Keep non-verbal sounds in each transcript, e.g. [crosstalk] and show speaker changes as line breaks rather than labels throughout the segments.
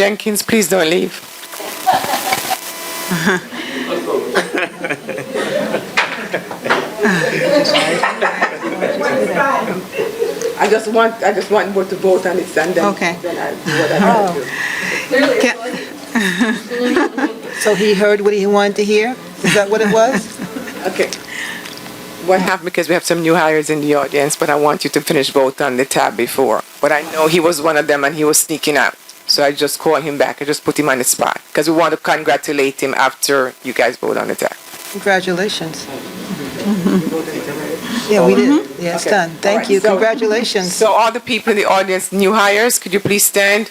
Jenkins, please don't leave.
[laughs] I just want, I just want board to vote on it and then,
Okay.
then I do what I have to do.
So he heard what he wanted to hear? Is that what it was?
Okay. What happened, because we have some new hires in the audience, but I want you to finish vote on the tab before. But I know he was one of them and he was sneaking out. So I just called him back. I just put him on the spot because we want to congratulate him after you guys vote on the tab.
Congratulations. Yeah, we did. Yeah, it's
Okay.
done.
All
Thank
right,
you.
so-
Congratulations.
So all the people in the audience, new hires, could you please stand?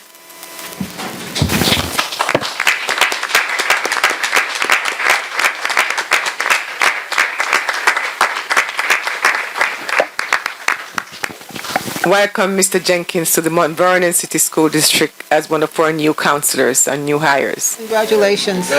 Welcome, Mr. Jenkins, to the Mount Vernon City School District as one of our new counselors and new hires.
Congratulations.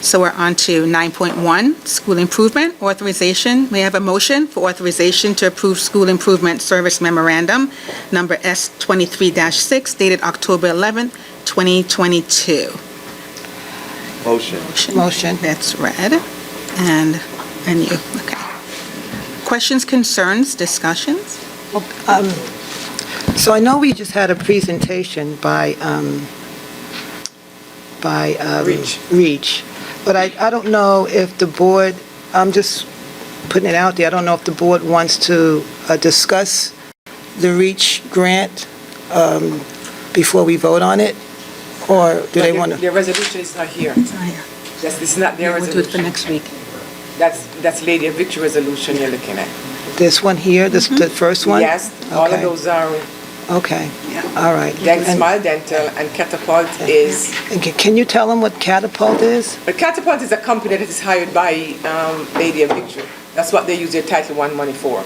So we're on to 9.1, School Improvement Authorization. May I have a motion for authorization to approve School Improvement Service Memorandum, number S23-6, dated October 11, 2022?
Motion.
Motion.
That's read. And, and you, okay. Questions, concerns, discussions?
Um, So I know we just had a presentation by, um, by... um,
Reach.
Reach. But I, I don't know if the board, I'm just putting it out there, I don't know if the board wants to uh, discuss the Reach grant um, before we vote on it? Or do they want to?
Their resolution is not here. That's, it's not their
Oh, We'll do it for
resolution.
next week.
That's, that's Lady of Victory resolution you're looking at.
This one here, this, the first one?
Mm-hmm. Yes, all of
Okay.
those are
Okay, all right.
Then
And-
Smile Dental and Catapult is,
and ca- Can you tell them what Catapult is?
but Catapult is a company that is hired by um, Lady of Victory. That's what they use their Title One money for,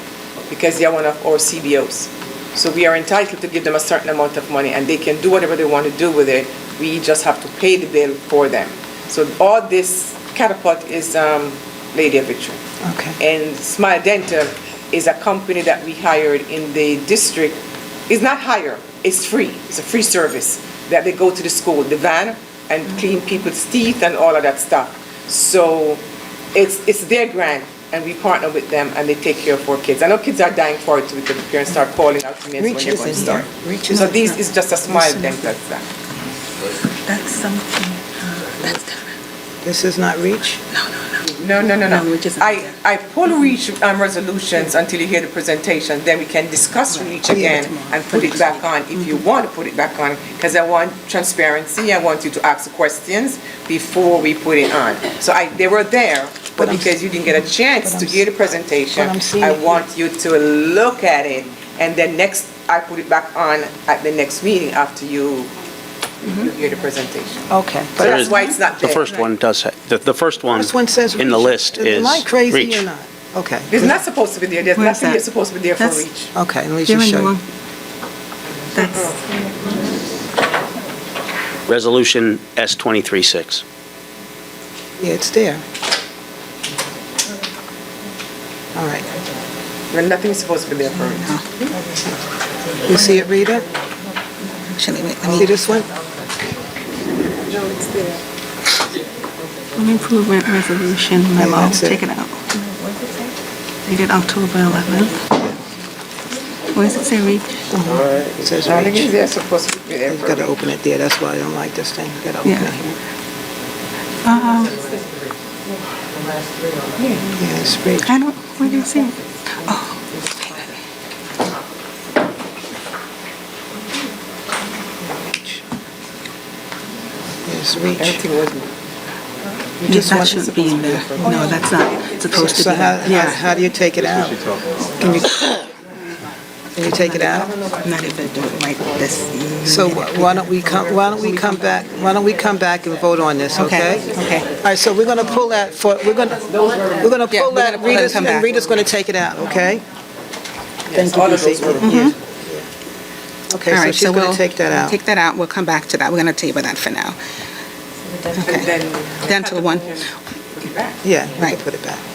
because they are one of our CBOs. So we are entitled to give them a certain amount of money, and they can do whatever they want to do with it. We just have to pay the bill for them. So all this Catapult is um, Lady of Victory.
Okay.
And Smile Dental is a company that we hired in the district. It's not hire, it's free. It's a free service that they go to the school, the van, and clean people's teeth and all of that stuff. So it's, it's their grant, and we partner with them, and they take care of our kids. I know kids are dying for it, because the parents start calling out to me and saying, when
Reach
you're going to
isn't here.
start.
Reach
So
isn't
this
here.
is just a Smile Dental stuff.
That's something, uh, that's different.
This is not Reach?
No, no, no.
No, no, no, no.
No, we just-
I, I pull reach um, resolutions until you hear the presentation, then we can discuss reach again and put it back on if you want to put it back on, because I want transparency, I want you to ask questions before we put it on. So I, they were there, but because you didn't get a chance to hear the presentation,
But I'm seeing
I
it here.
want you to look at it, and then next, I put it back on at the next meeting after you you hear the presentation.
Okay.
So
But
that's why it's not
The
there.
first one does, ha- the, the first one.
This one says reach.
In the list is.
Am I crazy
reach.
or not? Okay.
It's not supposed to be there, there's
Where's
nothing
that?
that's supposed to be there for
That's-
reach.
Okay, let me
You're
just
in the
show you.
wrong- That's.
Resolution S twenty-three six.
Yeah, it's there. All right.
When nothing's supposed to be there for it.
You see it, Rita?
Actually, wait,
See
let me,
this one?
home improvement resolution
Yeah,
memo,
that's it.
take it out. Dated October 11th. Where does it say reach?
It says
Nothing is
reach.
there supposed to be there
You've
for
got to
it.
open it there, that's why I don't like this thing. you got to open it
Yeah.
here.
Uh,
Yeah, it's reach.
I don't, where do you see it? Oh.
It's reach.
Everything was
Yeah,
just
That
want-
shouldn't be in there. No, that's not supposed to be.
So how,
there.
how-
Yeah,
how do you take it out? Can you, can you take it out?
not if they do it like this.
So wh- why don't we come, why don't we come back, why don't we come back and vote on this, okay?
Okay.
All right, so we're going to pull that for, we're going to, we're going to
Yeah,
pull
we're
that,
gonna pull it and
Rita's,
come
and
back.
Rita's going to take it out, okay?
Yes, all of those were
Okay,
Mm-hmm. All
so
right,
she's
so
going
we'll.
to take that out.
Take that out, we'll [laughs] come back to that, we're gonna table that for now.
[laughs] And then
Dental one.
it back.
Yeah, we can
Right.
put it back.